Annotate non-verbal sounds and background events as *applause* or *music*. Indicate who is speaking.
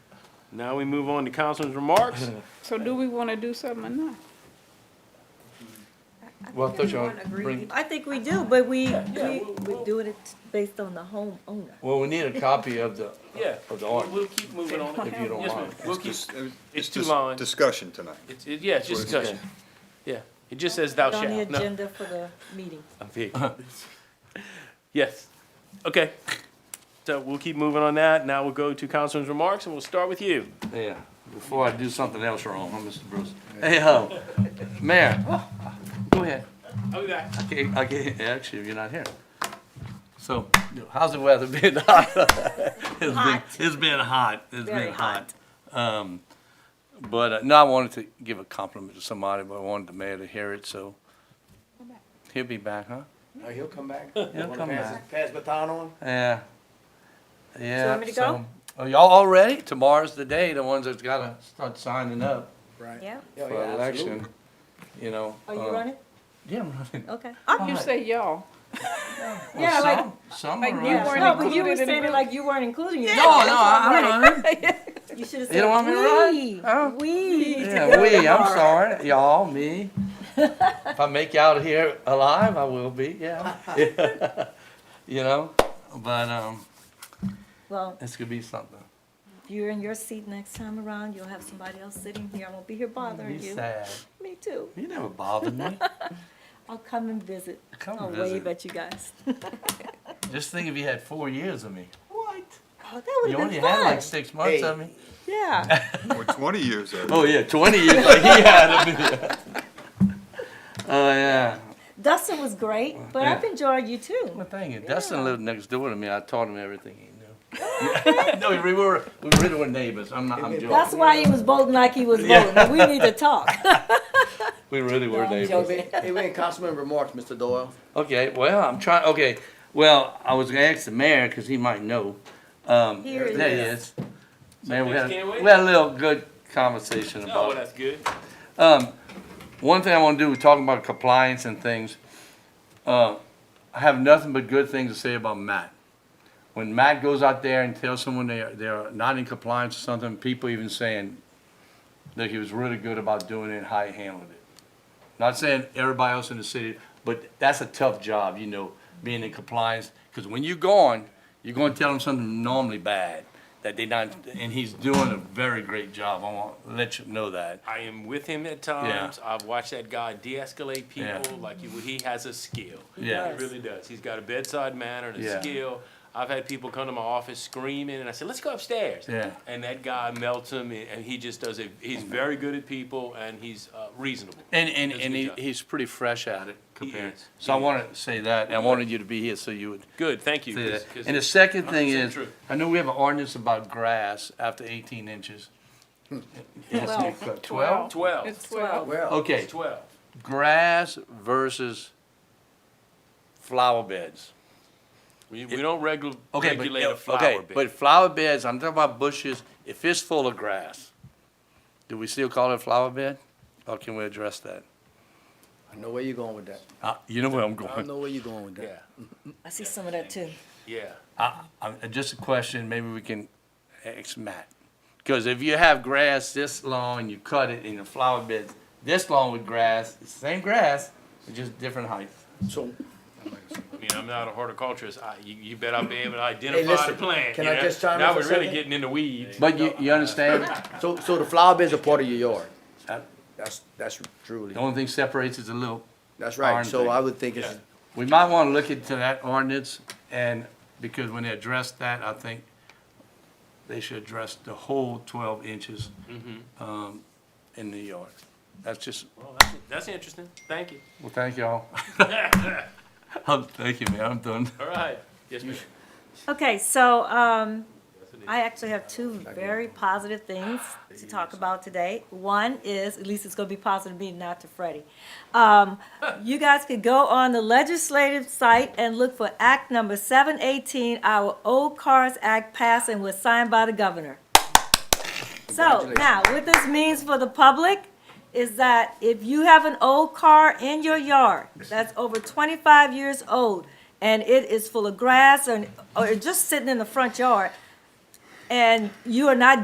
Speaker 1: Now we move on to councilman's *laughs* remarks.
Speaker 2: So do we wanna do something or not?
Speaker 3: Well, I thought y'all
Speaker 4: Everyone
Speaker 3: bring,
Speaker 4: agreed. I think we do, but we, we,
Speaker 1: we'll-
Speaker 4: we're doing it based on the homeowner.
Speaker 3: well, we need a copy of the,
Speaker 1: Yeah,
Speaker 3: Of the art.
Speaker 1: we'll keep moving on.
Speaker 3: if you don't
Speaker 1: Yes, ma'am.
Speaker 3: mind.
Speaker 1: We'll keep,
Speaker 5: Just- uh,
Speaker 1: it's two
Speaker 5: just
Speaker 1: lines.
Speaker 5: Discussion tonight.
Speaker 1: it's, it- yeah, it's just
Speaker 5: It's okay.
Speaker 1: discussion. Yeah, it just says thou
Speaker 4: On the
Speaker 1: shalt. No,
Speaker 4: agenda for the meeting.
Speaker 1: I'm big. *laughs* Yes, okay. So we'll keep moving on that. Now we'll go to councilman's remarks and we'll start with you.
Speaker 6: Yeah, before I do something else wrong, huh, Mr. Bruce? Hey,
Speaker 3: uh,
Speaker 6: ho, Mayor, go ahead.
Speaker 1: I'll be back.
Speaker 6: I can't, I can't, actually, if you're not here. So, how's the weather been? *laughs* It's been-
Speaker 4: Hot.
Speaker 6: It's been hot, it's
Speaker 4: Very
Speaker 6: been hot. Um, but, uh, no, I wanted to give a compliment to somebody, but I wanted the mayor to hear it, so. He'll be back, huh?
Speaker 3: Uh, he'll come back.
Speaker 6: He'll come back.
Speaker 3: Pass baton on?
Speaker 6: Yeah. Yeah.
Speaker 4: want me to go?
Speaker 6: so- Are y'all all ready? Tomorrow's the day, the ones that's gotta start signing up.
Speaker 4: Oh, Yeah,
Speaker 6: for election, you know.
Speaker 4: are you
Speaker 6: um,
Speaker 4: running?
Speaker 6: Yeah, I'm running.
Speaker 4: Okay.
Speaker 2: You
Speaker 6: Alright.
Speaker 2: say y'all.
Speaker 6: Well,
Speaker 4: *laughs* Yeah, like-
Speaker 6: some- Some
Speaker 2: like
Speaker 6: are
Speaker 2: you
Speaker 6: running.
Speaker 2: weren't
Speaker 4: No, but you
Speaker 2: included
Speaker 4: were
Speaker 2: in the
Speaker 4: saying it
Speaker 2: bill.
Speaker 4: like you weren't including
Speaker 6: No,
Speaker 4: yourself.
Speaker 6: no, I'm
Speaker 4: *laughs*
Speaker 6: running.
Speaker 4: You should have
Speaker 6: You don't want me to run?
Speaker 4: said,
Speaker 6: Huh?
Speaker 4: we, we.
Speaker 6: Yeah,
Speaker 4: *laughs*
Speaker 6: we, I'm sorry, y'all, me. If I make you out of here alive, I will be, yeah. *laughs* You know, but, um,
Speaker 4: Well,
Speaker 6: it's gonna be something.
Speaker 4: if you're in your seat next time around, you'll have somebody else sitting here. I won't be here
Speaker 6: Be
Speaker 4: bothering you.
Speaker 6: sad.
Speaker 4: Me too.
Speaker 6: You never bothered
Speaker 4: *laughs*
Speaker 6: me.
Speaker 4: I'll come and visit.
Speaker 6: Come
Speaker 4: I'll wave
Speaker 6: visit.
Speaker 4: at you guys.
Speaker 6: Just think if you had four years of me.
Speaker 4: What? Oh, that would
Speaker 6: You
Speaker 4: have
Speaker 6: only
Speaker 4: been
Speaker 6: had
Speaker 4: fun.
Speaker 6: like six months of me. *laughs*
Speaker 4: Yeah.
Speaker 5: Or twenty years of it.
Speaker 6: Oh, yeah, twenty years like he had of me. Oh, yeah.
Speaker 4: Dustin was great, but I've enjoyed you too.
Speaker 6: Well, thank you. Dustin lived next door to me. I taught him everything he knew. *laughs* no, we were we really were neighbors. I'm not. I'm
Speaker 4: That's
Speaker 6: joking.
Speaker 4: why he was voting like he was
Speaker 6: Yeah.
Speaker 4: voting. We need to talk.
Speaker 6: We really *laughs* were
Speaker 3: It
Speaker 6: neighbors.
Speaker 3: went- it went councilman remarks, Mr. Doyle.
Speaker 6: Okay. Well, I'm trying. Okay. Well, I was gonna ask the mayor because he might know. Um,
Speaker 4: Here it
Speaker 6: there he
Speaker 4: is.
Speaker 6: is. Man, we had,
Speaker 1: Something's getting away?
Speaker 6: we had a little good conversation about.
Speaker 1: No,
Speaker 6: it.
Speaker 1: that's good.
Speaker 6: Um, one thing I want to do, we're talking about compliance and things. Uh, I have nothing but good things to say about Matt. When Matt goes out there and tells someone they are, they are not in compliance or something, people even saying that he was really good about doing it and how he handled it. Not saying everybody else in the city, but that's a tough job, you know, being in compliance. Because when you're gone, you're going to tell them something normally bad that they not, and he's doing a very great job. I want to let you know that.
Speaker 1: I am with him at times. I've watched that guy de-escalate
Speaker 6: Yeah.
Speaker 1: people like you, he has a skill.
Speaker 6: Yeah.
Speaker 1: He really does. He's got a bedside manner and a
Speaker 6: Yeah.
Speaker 1: skill. I've had people come to my office screaming, and I said, "Let's go upstairs."
Speaker 6: Yeah.
Speaker 1: And that guy melts him, and and he just does it. He's very good at people, and he's uh, reasonable.
Speaker 6: And, and,
Speaker 1: Does a
Speaker 6: and
Speaker 1: good
Speaker 6: he,
Speaker 1: job.
Speaker 6: he's pretty fresh at it compared.
Speaker 1: is.
Speaker 6: So I wanted to say that, and I wanted you to be here so you would
Speaker 1: Good, thank you.
Speaker 6: say
Speaker 1: 'cause-
Speaker 6: that.
Speaker 1: 'cause
Speaker 6: And the second thing
Speaker 1: 100%
Speaker 6: is,
Speaker 1: true.
Speaker 6: I know we have an ordinance about grass after eighteen inches. Yes,
Speaker 2: Twelve.
Speaker 6: Twelve?
Speaker 1: Twelve.
Speaker 2: It's twelve.
Speaker 3: Well,
Speaker 6: Okay,
Speaker 1: It's Twelve.
Speaker 6: grass versus flower beds.
Speaker 1: We, we don't regul-
Speaker 6: Okay, but,
Speaker 1: regulate a flower
Speaker 6: okay,
Speaker 1: bed.
Speaker 6: but flower beds, I'm talking about bushes, if it's full of grass, do we still call it a flower bed? Or can we address that?
Speaker 3: I know where you're going with that.
Speaker 6: Uh, you know where I'm
Speaker 3: I
Speaker 6: going.
Speaker 3: know where you're going with
Speaker 1: yeah,
Speaker 3: that.
Speaker 4: I see some of that too.
Speaker 1: yeah.
Speaker 6: I, I, just a question, maybe we can ask Matt. Because if you have grass this long and you cut it in the flower beds this long with grass, it's the same grass, it's just different height.
Speaker 3: So,
Speaker 1: I mean, I'm not a horticulturist. I, you, you bet I'll be able to identify
Speaker 3: Hey, listen,
Speaker 1: the plant.
Speaker 3: can
Speaker 1: you
Speaker 3: I
Speaker 1: know?
Speaker 3: just chime in
Speaker 1: now
Speaker 3: for a
Speaker 1: we're really
Speaker 3: second?
Speaker 1: getting into weeds.
Speaker 6: But you, you understand?
Speaker 3: so, so the flower beds are part of your yard.
Speaker 6: Uh,
Speaker 3: That's, that's truly,
Speaker 6: The only thing separates is a little.
Speaker 3: that's right.
Speaker 6: Darn
Speaker 3: So
Speaker 6: thing.
Speaker 3: I would think it's,
Speaker 1: Yeah.
Speaker 6: We might want to look into that ordinance and, because when they address that, I think they should address the whole twelve inches, um, in New York. That's just,
Speaker 1: Well, that's, that's interesting. Thank you.
Speaker 6: well, thank *laughs* y'all. Um, Thank you, man, I'm done.
Speaker 1: All right. Yes, ma'am.
Speaker 4: Okay, so um, I actually have two very positive things to talk about today. One is, at least it's going to be positive to me, not to Freddie. Um, you guys could go on the legislative site and look for Act Number 718, our Old Cars Act passed and was signed by the governor. So now, what this means for the public is that if you have an old car in your yard that's over twenty-five years old and it is full of grass and, or just sitting in the front yard and you are not